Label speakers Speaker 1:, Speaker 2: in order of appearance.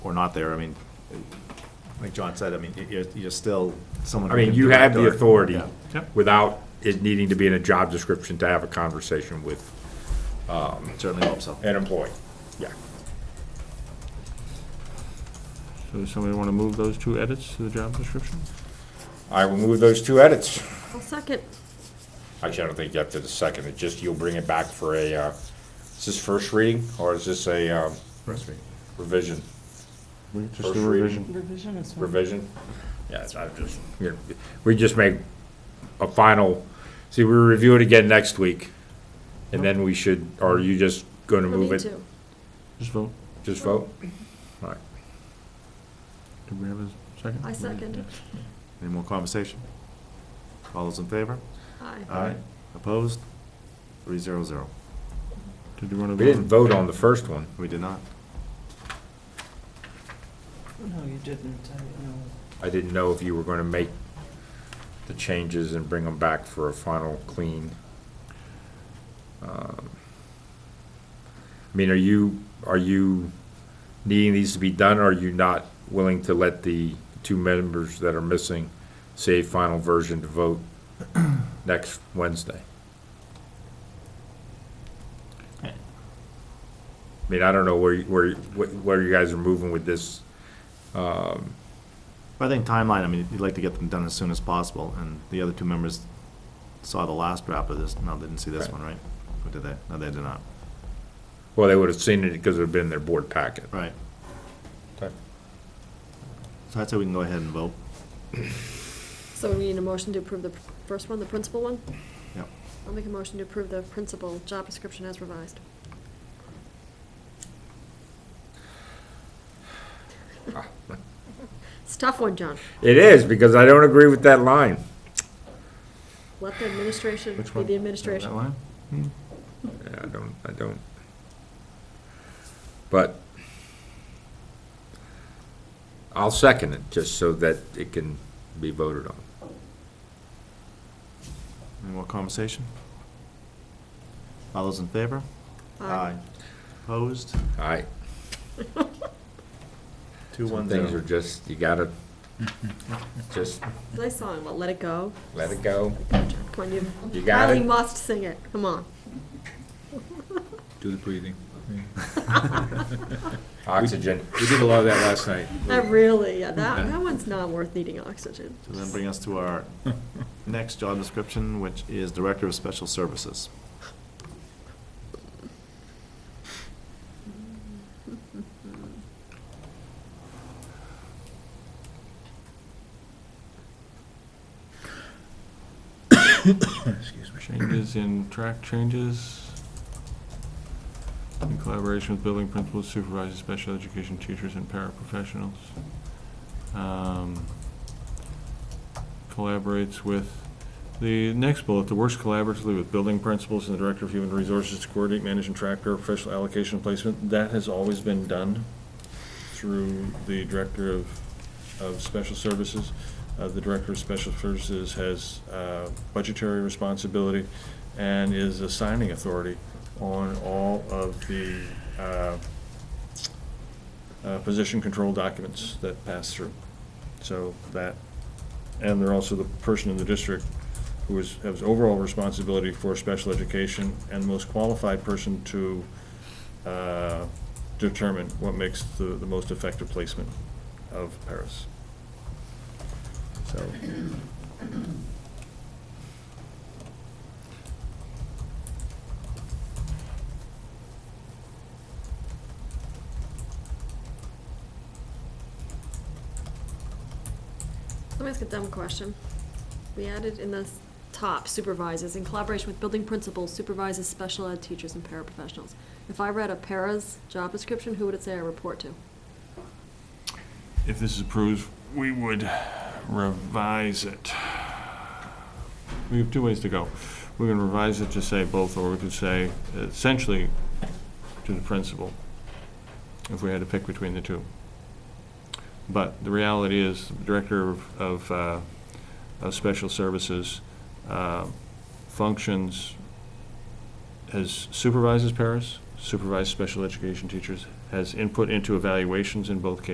Speaker 1: or not there, I mean, like John said, I mean, you're, you're still someone.
Speaker 2: I
Speaker 1: who
Speaker 2: mean,
Speaker 1: can
Speaker 2: you
Speaker 1: direct
Speaker 2: have the
Speaker 1: or-
Speaker 2: authority
Speaker 1: Yeah.
Speaker 2: without it needing to be in a job description to have a conversation with
Speaker 1: Certainly hope so.
Speaker 2: an employee. Yeah.
Speaker 3: So does somebody want to move those two edits to the job description?
Speaker 2: I will move those two edits.
Speaker 4: I'll second.
Speaker 2: Actually, I don't think you have to the second, it just, you'll bring it back for a, uh, is this first reading, or is this a, um, revision?
Speaker 3: Just
Speaker 2: First
Speaker 3: a
Speaker 2: reading.
Speaker 3: revision.
Speaker 4: Revision is fine.
Speaker 2: revision? Yes, I've just. We just make a final, see, we review it again next week, and then we should, or are you just gonna
Speaker 4: No
Speaker 2: move
Speaker 4: need
Speaker 2: it?
Speaker 4: to.
Speaker 3: Just vote.
Speaker 2: Just vote? All right.
Speaker 3: Did we have a second?
Speaker 4: I second.
Speaker 1: Any more conversation? All those in favor?
Speaker 4: Aye.
Speaker 1: Aye. Opposed? Three zero zero.
Speaker 3: Did you want to?
Speaker 2: We didn't vote on the first one.
Speaker 1: We did not.
Speaker 5: No, you didn't, I, no.
Speaker 2: I didn't know if you were gonna make the changes and bring them back for a final clean. Um, I mean, are you, are you needing these to be done, or are you not willing to let the two members that are missing say final version to vote next Wednesday? I mean, I don't know where, you- where, you- where you guys are moving with this.
Speaker 1: But I think timeline, I mean, you'd like to get them done as soon as possible, and the other two members saw the last draft of this, no, they didn't see this
Speaker 2: Right.
Speaker 1: one, right? Or did they? No, they did not.
Speaker 2: Well, they would have seen it because it would have been in their board packet.
Speaker 1: Right.
Speaker 2: Okay.
Speaker 1: So I'd say we can go ahead and vote.
Speaker 4: So we need a motion to approve the pr- first one, the principal one?
Speaker 1: Yep.
Speaker 4: I'll make a motion to approve the principal job description as revised. It's a tough one, John.
Speaker 2: It is, because I don't agree with that line.
Speaker 4: Let the administration
Speaker 1: Which
Speaker 4: be
Speaker 1: one?
Speaker 4: the administration.
Speaker 1: That line?
Speaker 2: Yeah, I don't, I don't. But I'll second it, just so that it can be voted on.
Speaker 1: Any more conversation? All those in favor? Opposed?
Speaker 2: All right,
Speaker 1: Two
Speaker 2: some
Speaker 1: one
Speaker 2: things are
Speaker 1: zero.
Speaker 2: just, you gotta, just
Speaker 4: Nice song, Let It Go.
Speaker 2: let it go,
Speaker 4: Come on, you
Speaker 2: You got
Speaker 4: highly
Speaker 2: it.
Speaker 4: must sing it. Come on.
Speaker 6: Do the breathing.
Speaker 2: oxygen.
Speaker 6: We did a lot of that last night.
Speaker 4: That Uh, really, yeah, that, that one's not worth needing oxygen.
Speaker 1: So then bring us to our next job description, which is Director of Special Services.
Speaker 6: Excuse me.
Speaker 3: Changes in track changes in collaboration with building principals, supervisors, special education teachers, and paraprofessionals. Um, Collaborates with, the next bullet, the works collaboratively with building principals and the director of human resources to coordinate, manage, and track their professional allocation and placement. That has always been done through the director of, of special services. Uh, The Director of Special Services has uh, budgetary responsibility and is assigning authority on all of the uh, uh, position control documents that pass through. So that, and they're also the person in the district who is, has overall responsibility for special education and most qualified person to uh, determine what makes the, the most effective placement of Paris. So,
Speaker 4: Let me ask a dumb question. We added in the s- top supervisors, in collaboration with building principals, supervisors, special ed teachers, and paraprofessionals. If I read a para's job description, who would it say I report to?
Speaker 3: if this is approved, we would revise it. We have two ways to go. We can revise it to say both, or we could say essentially to the principal, if we had to pick between the two. But the reality is, the Director of, of, uh, of Special Services uh, functions has supervises paras, supervises special education teachers, has input into evaluations in both cases.